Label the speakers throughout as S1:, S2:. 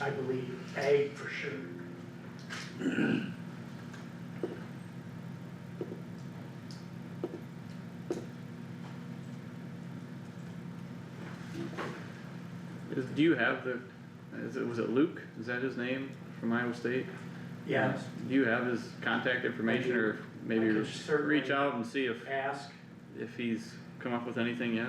S1: I believe, ag for sure.
S2: Is, do you have the, is it, was it Luke? Is that his name from Iowa State?
S1: Yeah,
S2: Do you have his contact information or maybe
S1: I can
S2: re-
S1: certainly-
S2: reach out and see if,
S1: ask,
S2: if he's come up with anything yet?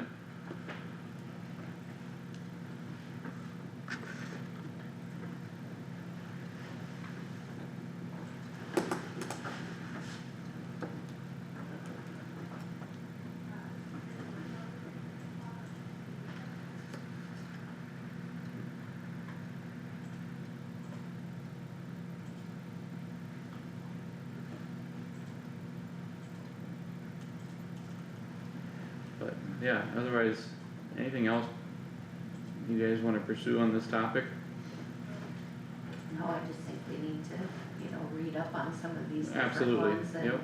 S2: But yeah, otherwise, anything else you guys wanna pursue on this topic?
S3: No, I just think we need to, you know, read up on some of these different
S2: Absolutely,
S3: ones and
S2: yep,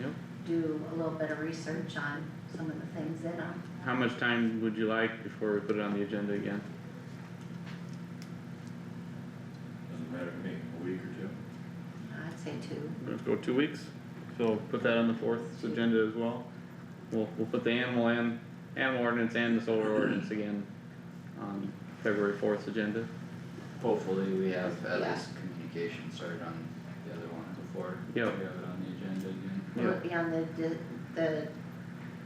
S2: yep.
S3: do a little bit of research on some of the things in them.
S2: How much time would you like before we put it on the agenda again?
S4: Doesn't matter to me, a week or two.
S3: I'd say two.
S2: Let's go two weeks, so put that on the fourth agenda as well. We'll, we'll put the animal and, animal ordinance and the solar ordinance again on February fourth agenda.
S5: Hopefully we have at
S3: Yeah.
S5: least communication started on the other one before.
S2: Yeah.
S5: We have it on the agenda again.
S3: Will
S2: Yeah.
S3: it be on the, di- the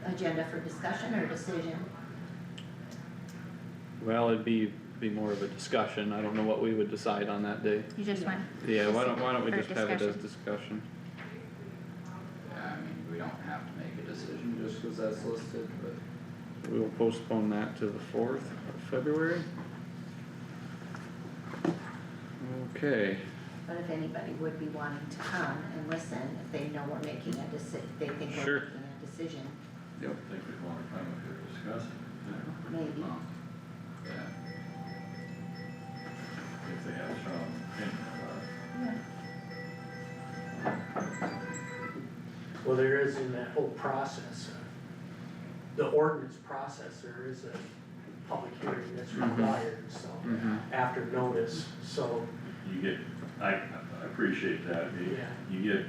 S3: agenda for discussion or decision?
S2: Well, it'd be, be more of a discussion, I don't know what we would decide on that day.
S6: You just went,
S2: Yeah, why don't, why don't we
S6: Or
S2: just have it as discussion?
S5: Yeah, I mean, we don't have to make a decision just cause that's listed, but
S2: We will postpone that to the fourth of February. Okay,
S3: But if anybody would be wanting to come and listen, if they know we're making a deci- they think
S2: Sure.
S3: we're making a decision,
S4: I think we'd wanna come if we're discussing,
S3: maybe.
S5: um, yeah,
S4: if they have strong opinion about it.
S1: well, there is in that whole process, uh, the ordinance process, there is a public hearing that's
S2: Mhm.
S1: required, so,
S2: mhm,
S1: after notice, so,
S4: You get, I, I appreciate that, you,
S1: Yeah.
S4: you get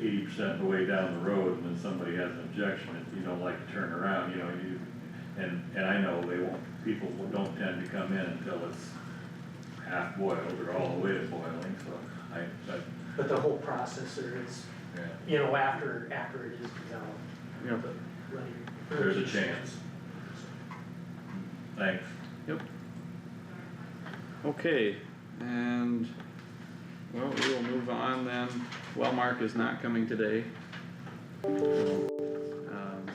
S4: eighty percent of the way down the road and then somebody has an objection, if you don't like to turn around, you know, you, and, and I know they won't, people will- don't tend to come in until it's half boiled or all the way to boiling, so I, I,
S1: but the whole process there is,
S4: yeah,
S1: you know, after, after it is developed,
S2: yep,
S1: but letting-
S4: there's a chance. Thanks.
S2: okay, and, well, we will move on then, well, Mark is not coming today. So, um,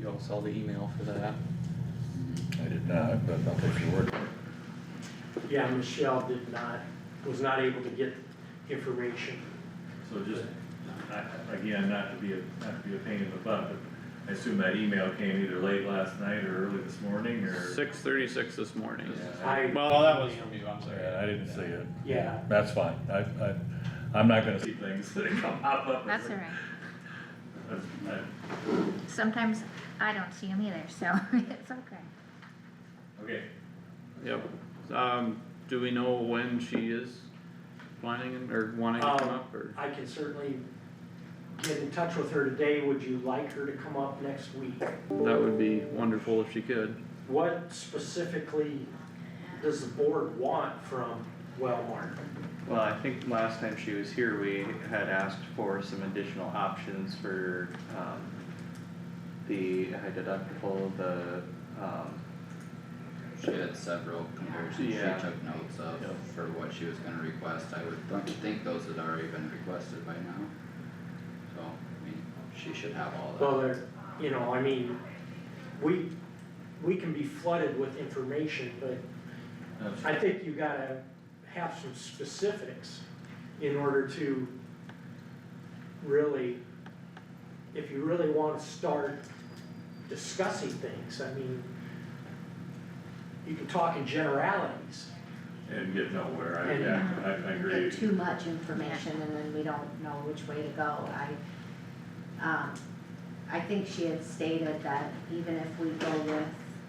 S2: You all saw the email for that,
S4: I did not, but I'll take your word for it.
S1: Yeah, Michelle did not, was not able to get information.
S4: So just, I, again, not to be a, not to be a pain in the butt, but I assume that email came either late last night or early this morning, or?
S2: six thirty-six this morning.
S4: Yeah,
S1: I,
S2: Well, that was from you, I'm
S4: I- I didn't see it,
S1: yeah,
S4: that's fine, I, I, I'm not gonna see things that come up. up.
S6: that's alright.
S4: That's- I-
S6: Sometimes I don't see them either, so it's okay.
S4: Okay,
S2: Yep, um, do we know when she is planning or wanting to come
S1: Um,
S2: up, or?
S1: I can certainly get in touch with her today. Would you like her to come up next week?
S2: That would be wonderful if she could.
S1: What specifically does the board want from Wellmark?
S7: Well, I think last time she was here, we had asked for some additional options for, um, the high deductible, the, um,
S5: she had several comparisons she
S7: Yeah.
S5: took notes of
S7: Yep.
S5: for what she was gonna request, I would th- think those had already been requested by now. So, I mean, she should have all that.
S1: Well, there, you know, I mean, we, we can be flooded with information, but
S4: that's,
S1: I think you gotta have some specifics in order to really, if you really wanna start discussing things, I mean, you can talk in generalities.
S4: and get nowhere, I,
S1: And-
S4: yeah, I, I
S3: We
S4: agree,
S3: get too much information and then we don't know which way to go, I, um, I think she had stated that even if we go with